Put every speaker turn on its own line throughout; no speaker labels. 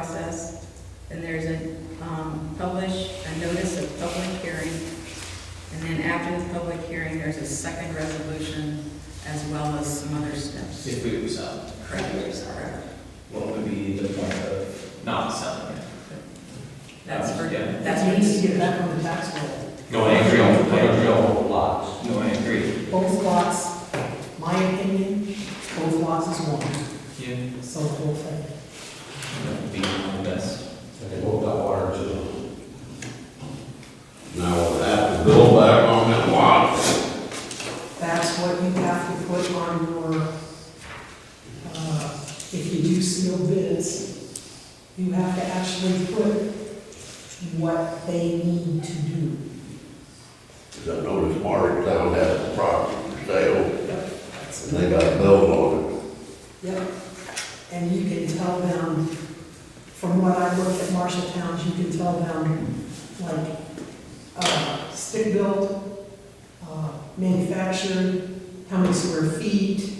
process, then there's a, um, publish, a notice of public hearing, and then after the public hearing, there's a second resolution as well as some other steps.
if uh, we would sell,
Correct, correct.
What would be the point of?
not selling it.
That's for,
Yeah.
that's
We need to
for,
get back on the tax roll.
No, I agree on, I agree on all lots.
No, I agree.
Both lots, my opinion, both lots is one,
Yeah.
so the whole thing.
That would be the best.
They both got water too.
Now, will that bill back on that lot?
That's what you have to put on your, uh, if you do sealed bids, you have to actually put what they need to do.
Because I noticed Martintown has a property for sale, and they got a bill on
Yep, and you can tell them, from what I looked at Marshall Towns, you can tell them, like, uh, stick-built, uh, manufactured, how many square feet.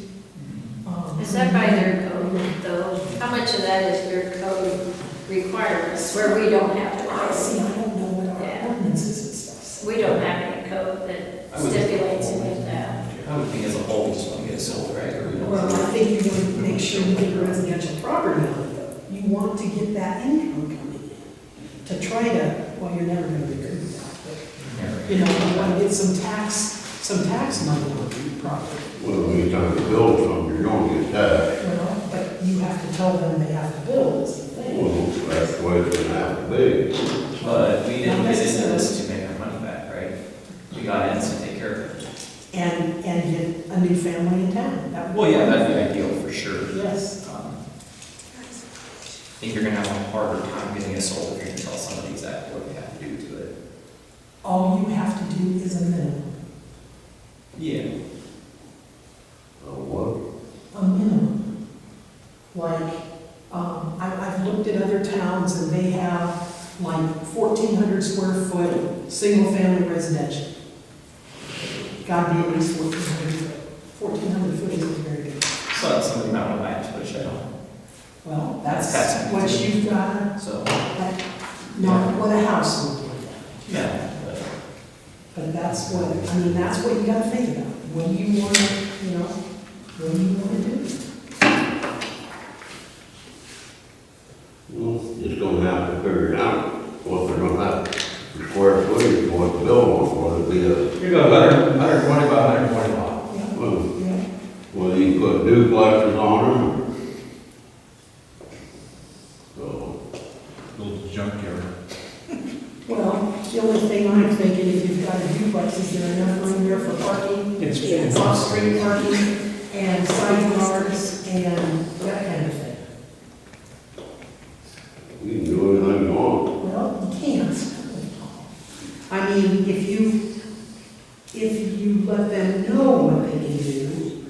um,
Is that by their code though? How much of that is their code requirements where we don't have to
I see, I don't know what
Yeah.
our ordinances and stuff say.
We don't have any code that
I would-
stipulates any of that.
I would think as a whole, we just want to get it sold, right? Or we don't-
Well, I think you want to make sure you get residential property on it, though. You want to get that income coming in. To try to, well, you're never gonna recoup that, but, you know, you want to get some tax, some tax money on your property.
it. Well, anytime you build something, you're gonna get taxed.
Well, but you have to tell them they have to build, is the thing.
Well, that's the way it's gonna have to be.
But we didn't get
Not
into this to
necessarily.
make our money back, right? We got in to take care of it.
And, and get a new family in town. That would-
Well, yeah, that'd be ideal for sure.
Yes,
Um, I think you're gonna have a harder time getting it sold if you're gonna tell somebody exactly what they have to do to it.
all you have to do is a minimum,
Yeah.
Uh, what?
a minimum. Like, um, I, I've looked at other towns and they have like fourteen hundred square foot, single family residential. Gotta be at least fourteen hundred foot. Fourteen hundred foot isn't very good.
So that's something that would match, but I don't,
Well, that's
That's-
what you've got,
so,
that, not what a house would be.
yeah. but-
But that's what, I mean, that's what you gotta think about. What do you want, you know, what do you wanna do?
Well, just gonna have to figure it out, what they're gonna have, for square footage, what to build on, whether it be a,
You got hundred, hundred twenty by hundred twenty lot.
Yeah,
well,
yeah.
whether you put duplexes on them. So,
little junkyard.
Well, the only thing I'm thinking, if you've got a duplex, is there enough room there for parking?
It's
Off-street parking and side yards and that kind of thing.
you can do anything you want.
Well, you can't. I mean, if you, if you let them know what they can do,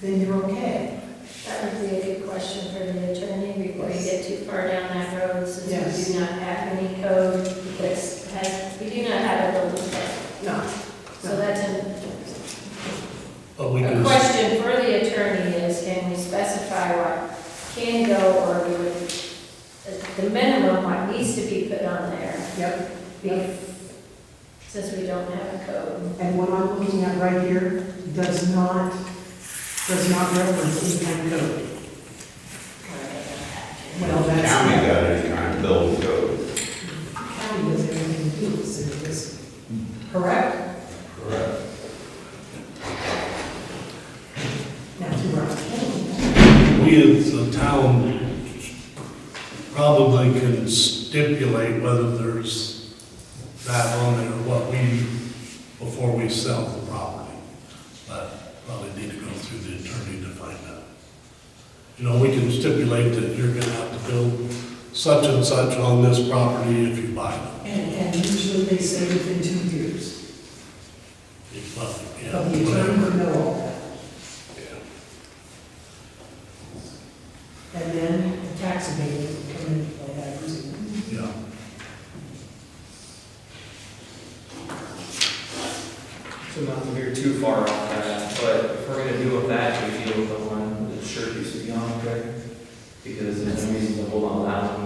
then you're okay.
That would be a good question for the attorney before you get too far down that road since
Yes.
we do not have any code that has, we do not have a building code.
No.
So that's an
But we
A
do,
question for the attorney is, can we specify what can go or we would, the minimum what needs to be put on there?
Yep.
be- Since we don't have a code.
And what I'm looking at right here does not, does not reference any kind of code. Well,
The County
that's,
got any kind of building code.
county does everything to do with city business. Correct?
Correct.
Now, to our,
we as a town probably can stipulate whether there's that on it or what we, before we sell the property. But probably need to go through the attorney to find out. You know, we can stipulate that you're gonna have to build such and such on this property if you buy it.
and, and usually they say within two years.
If not, yeah,
But the attorney
whatever.
would know all that.
Yeah.
And then the tax abatement would come into play, I presume.
Yeah.
So not to veer too far off that, but if we're gonna deal with that, we deal with the one that sure used to be on there. because there's no reason to hold on to that one